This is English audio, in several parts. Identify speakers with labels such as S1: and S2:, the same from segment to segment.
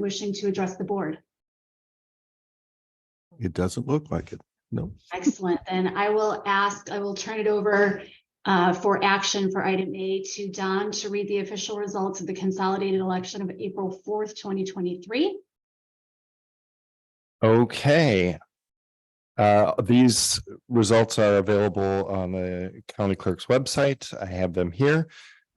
S1: wishing to address the board?
S2: It doesn't look like it. No.
S1: Excellent. Then I will ask, I will turn it over uh, for action for item A to Don to read the official results of the consolidated election of April fourth, twenty twenty-three.
S3: Okay. Uh, These results are available on the county clerk's website. I have them here.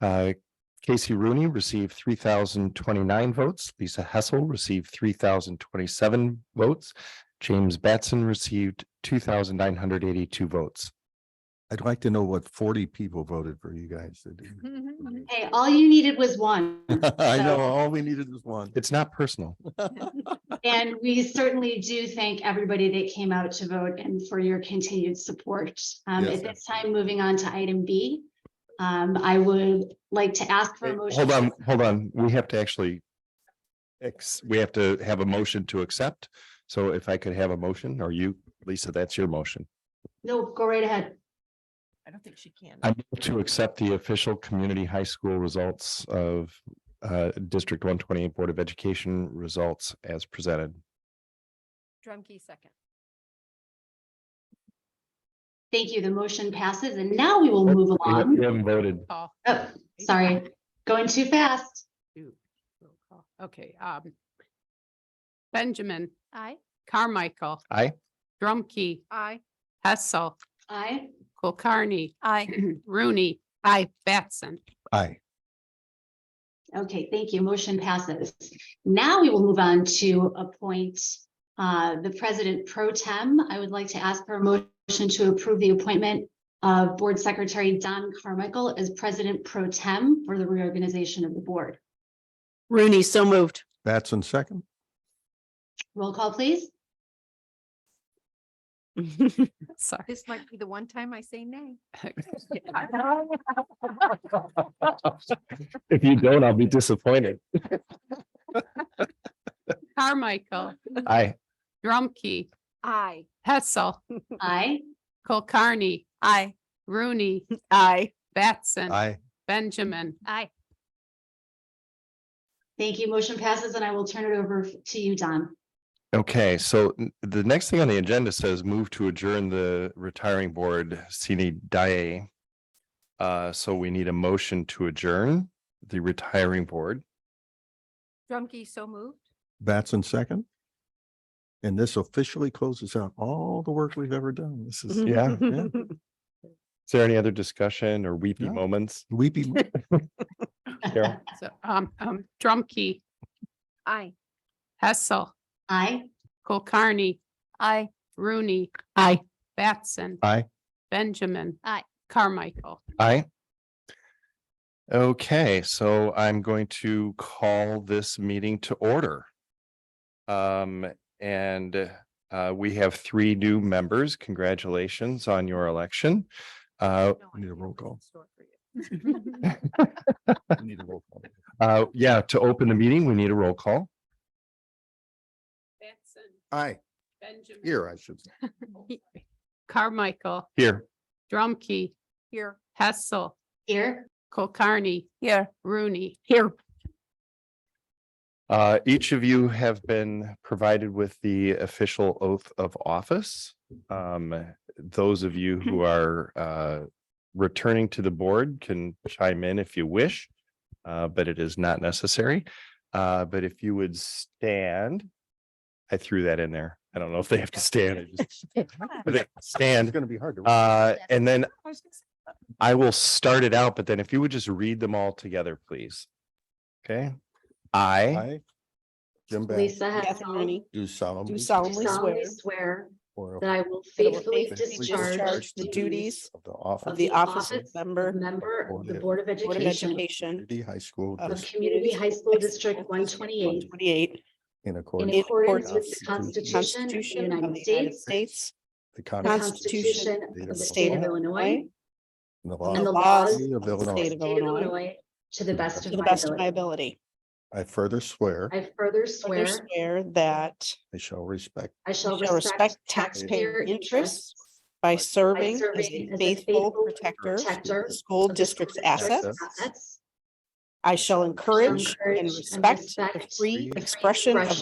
S3: Uh, Casey Rooney received three thousand twenty-nine votes. Lisa Hessel received three thousand twenty-seven votes. James Batson received two thousand nine hundred eighty-two votes.
S2: I'd like to know what forty people voted for you guys. to do.
S1: Hey, all you needed was one.
S2: I
S1: So-
S2: know, all we needed was one.
S3: It's not personal.
S1: And we certainly do thank everybody that came out to vote and for your continued support. Um,
S2: Yes.
S1: At this time, moving on to item B, um, I would like to ask for a motion.
S3: Hold on, hold on. We have to actually ex- we have to have a motion to accept. So if I could have a motion, or you, Lisa, that's your motion.
S1: No, go right ahead.
S4: I don't think she can.
S3: I move to accept the official community high school results of uh District one twenty-eight Board of Education results as presented.
S4: Drumkey second.
S1: Thank you. The motion passes and now we will move
S3: We
S1: along.
S3: haven't voted.
S4: Call.
S1: Oh, sorry, going too fast.
S5: Ooh, roll call. Okay, um. Benjamin,
S4: Aye.
S5: Carmichael.
S3: Aye.
S5: Drumkey,
S4: Aye.
S5: Hessel,
S1: Aye.
S5: Kulkarni,
S4: Aye.
S5: Rooney, I, Batson.
S2: Aye.
S1: Okay, thank you. Motion passes. Now we will move on to appoint uh, the president pro tem. I would like to ask for a motion to approve the appointment of Board Secretary Don Carmichael as president pro tem for the reorganization of the board.
S5: Rooney, so moved.
S2: Batson second.
S1: Roll call, please.
S5: Sorry.
S4: This might be the one time I say nay.
S3: If you don't, I'll be disappointed.
S5: Carmichael,
S3: Aye.
S5: Drumkey,
S4: Aye.
S5: Hessel,
S1: Aye.
S5: Kulkarni,
S4: Aye.
S5: Rooney,
S4: Aye.
S5: Batson,
S2: Aye.
S5: Benjamin.
S4: Aye.
S1: Thank you. Motion passes and I will turn it over to you, Don.
S3: Okay, so n- the next thing on the agenda says move to adjourn the retiring board, Sini Daye. Uh, so we need a motion to adjourn the retiring board.
S4: Drumkey so moved.
S2: Batson second. And this officially closes out all the work we've ever done. This is, yeah, yeah.
S3: Is there any other discussion or weepy
S2: No.
S3: moments?
S2: Weepy,
S3: Carol?
S5: So, um, um, Drumkey,
S4: Aye.
S5: Hessel,
S1: Aye.
S5: Kulkarni,
S4: Aye.
S5: Rooney. I, Batson.
S2: Aye.
S5: Benjamin.
S4: Aye.
S5: Carmichael.
S3: Aye. Okay, so I'm going to call this meeting to order. Um, and uh, we have three new members. Congratulations on your election. Uh,
S4: No, I
S2: Need a
S4: have
S2: roll
S4: one in
S2: call.
S4: store for you.
S2: need a roll call.
S3: uh, yeah, to open the meeting, we need a roll call.
S5: Batson,
S2: Aye,
S5: Benjamin.
S2: here, I should say.
S5: Carmichael,
S3: Here,
S5: Drumkey,
S4: Here.
S5: Hessel,
S1: Here.
S5: Kulkarni,
S4: Here.
S5: Rooney. Here.
S3: uh, each of you have been provided with the official oath of office. Um, those of you who are uh, returning to the board can chime in if you wish, uh, but it is not necessary. Uh, But if you would stand, I threw that in there. I don't know if they have to stand. I just- but they
S2: It's
S3: Stand,
S2: gonna be hard to.
S3: uh, and then I will start it out, but then if you would just read them all together, please. Okay, I
S2: Aye. Jim Batson,
S1: Lisa has
S2: do solemnly.
S6: Do
S1: solemnly
S6: solemnly swear
S1: swear
S2: or
S1: that I will
S6: that I will
S1: faithfully
S6: faithfully
S1: discharge
S6: discharge the duties
S2: Of the office.
S6: of the office of
S1: of
S6: member
S1: Member of the
S2: Board of
S1: Board of
S6: Board of
S1: Education
S6: Education
S2: Community High School
S6: of
S1: of
S2: District
S1: Community High School District one twenty-eight
S6: twenty-eight
S2: in
S1: in
S2: accordance. with
S1: accordance with the
S2: the
S1: Constitution of the
S6: Constitution of
S1: United
S6: the United
S1: States,
S6: States
S2: The
S1: the
S2: Constitution
S1: Constitution of the State of Illinois,
S6: Illinois,
S2: and the
S1: and the
S2: laws
S1: laws of
S6: laws
S2: of
S6: of the
S1: the
S2: Illinois.
S6: state
S1: State
S6: of
S1: of
S6: Illinois
S1: Illinois to the best
S6: to
S1: of
S6: the
S1: my
S6: best of my
S1: ability.
S6: ability.
S2: I further swear
S1: I further
S6: Further
S1: swear
S6: swear that
S2: I shall respect
S1: I shall
S6: shall
S1: respect
S6: respect
S1: taxpayer
S6: taxpayer
S1: interests
S6: interests by
S1: by
S6: serving as
S1: serving
S6: a faithful protector of
S1: protector
S6: the school
S1: of the
S6: district's
S1: school district's
S6: assets
S1: assets
S6: I shall encourage and
S1: encourage and
S6: respect the
S1: respect
S6: free
S1: free
S6: expression of
S1: expression